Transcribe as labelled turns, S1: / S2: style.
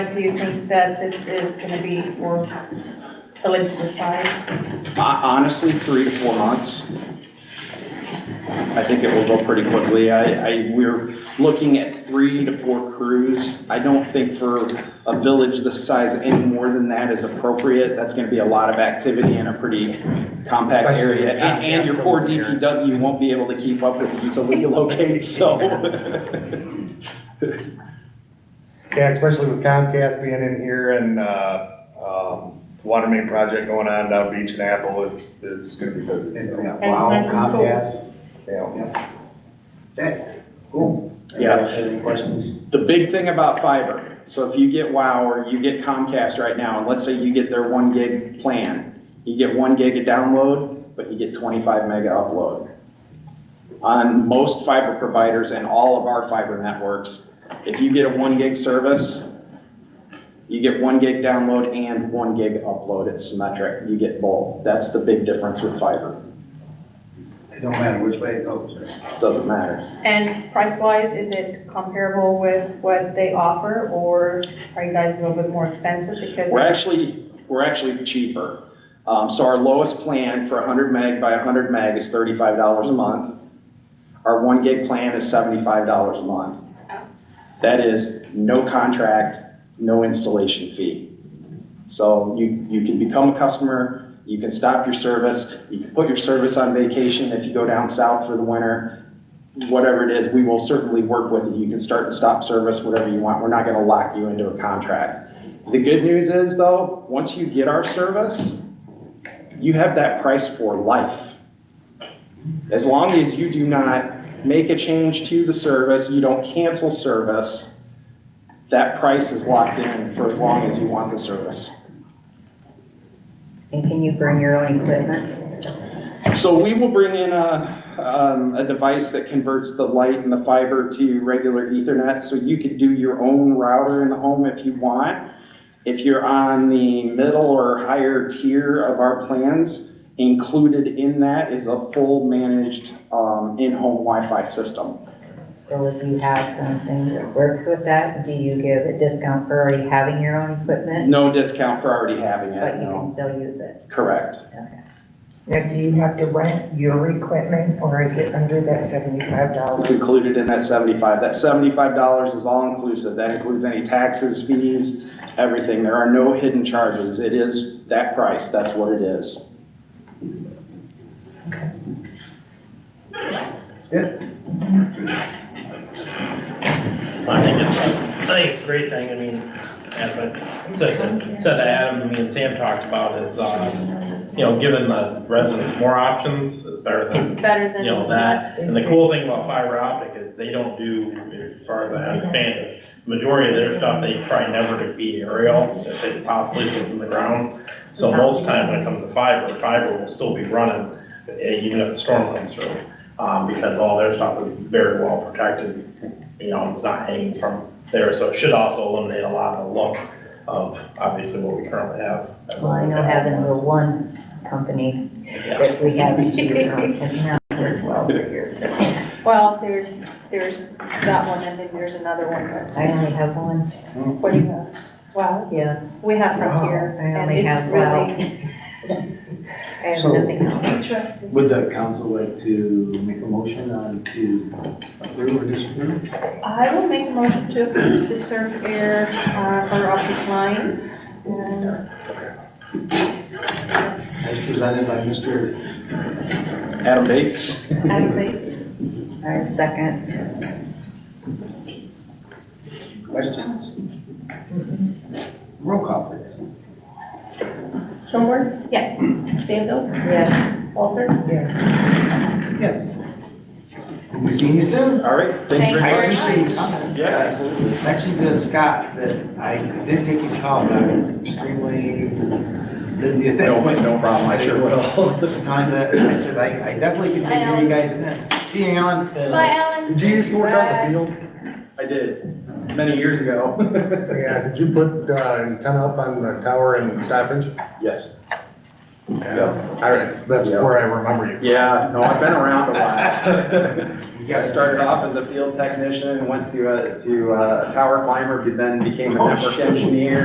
S1: Do you think that this is gonna be worth the legs this size?
S2: Hon- Honestly, three to four months. I think it will go pretty quickly. I, I, we're looking at three to four crews. I don't think for a village this size, any more than that is appropriate. That's gonna be a lot of activity in a pretty compact
S3: Especially
S2: area.
S3: with
S2: And, and your poor
S3: Comcast over
S2: DPW won't be able to keep up with it until we locate, so.
S3: Yeah, especially with Comcast being in here and, uh, um, the water main project going on down Beach and Apple, it's, it's gonna be busy, so,
S4: uh, Wow,
S1: nice and cool.
S4: Comcast,
S3: yeah.
S4: that, cool.
S2: Yeah.
S4: Anybody have Any questions?
S2: The big thing about fiber, so if you get WOW or you get Comcast right now, and let's say you get their one gig plan, you get one gig of download, but you get twenty-five mega upload. On most fiber providers and all of our fiber networks, if you get a one gig service, you get one gig download and one gig upload, it's symmetric, you get both. That's the big difference with fiber,
S4: It don't matter which way it goes. right?
S2: doesn't matter.
S1: And price-wise, is it comparable with what they offer, or are you guys a little bit more expensive because?
S2: We're actually, we're actually cheaper. Um, so our lowest plan for hundred meg by hundred meg is thirty-five dollars a month. Our one gig plan is seventy-five dollars a month. That is no contract, no installation fee. So you, you can become a customer, you can stop your service, you can put your service on vacation if you go down south for the winter. Whatever it is, we will certainly work with you. You can start and stop service, whatever you want. We're not gonna lock you into a contract. The good news is though, once you get our service, you have that price for life. As long as you do not make a change to the service, you don't cancel service, that price is locked in for as long as you want the service.
S5: And can you bring your own equipment?
S2: So we will bring in a, um, a device that converts the light and the fiber to regular ethernet, so you could do your own router in the home if you want. If you're on the middle or higher tier of our plans, included in that is a full managed, um, in-home Wi-Fi system.
S5: So if you have something that works with that, do you give a discount for already having your own equipment?
S2: No discount for already having
S5: But
S2: it,
S5: you can
S2: no,
S5: still use it?
S2: correct.
S6: Now, do you have to rent your equipment or is it under that seventy-five
S2: It's
S6: dollars?
S2: included in that seventy-five. That seventy-five dollars is all inclusive. That includes any taxes, fees, everything. There are no hidden charges. It is that price. That's what it is.
S7: I think it's, I think it's a great thing, I mean, as I, as I said to Adam, me and Sam talked about is, uh, you know, giving the residents more options is better
S1: It's
S7: than,
S1: better than.
S7: you know, that. And the cool thing about fiber optic is they don't do, as far as I understand, is majority of their stuff, they try never to be aerial, if they possibly gets in the ground. So most time when it comes to fiber, fiber will still be running, eh, even if a storm comes through, um, because all their stuff is very well protected. You know, it's not hanging from there, so it should also eliminate a lot of the look of obviously what we currently have.
S5: Well, I know having the one company that we have to choose from has not worked well for years. I
S1: Well, there's, there's that one, and then there's another one,
S5: only have one,
S1: but what do you have? Well,
S5: yes,
S1: we have Frontier,
S5: I
S1: and
S5: only
S1: it's
S5: have well.
S1: really
S5: I have
S4: So-
S5: nothing else.
S1: interesting.
S4: Would the council like to make a motion on to approve or disapprove?
S1: I will make a motion to approve the surf air, uh, fiber optic line. Um,
S4: As presented by Mr.
S2: Adam Bates?
S1: Adam Bates.
S5: I second.
S4: Questions? Roll call, please.
S1: Schoenberg? Yes. Stanfield?
S5: Yes,
S1: Walter?
S6: Yes,
S4: Yes. We'll see you soon.
S2: All right, thank you
S4: I
S2: very much.
S4: appreciate you coming.
S2: Yeah, absolutely.
S4: Actually, to Scott, that I did take his call, but I was extremely busy at that
S2: No,
S4: point.
S2: no problem, I sure will.
S4: There's time that I said, I, I definitely can figure you guys in. See you, Alan.
S1: Bye, Alan.
S8: Did you used to work out in the field?
S2: I did, many years ago.
S8: Yeah, did you put uh, antenna up on the tower in Stafford?
S2: Yes,
S3: I, that's where I remember you.
S2: Yeah, no, I've been around a while.
S4: You
S2: I
S4: gotta
S2: started off Oh, as a field technician, went to a, to a tower climber, then became a network engineer,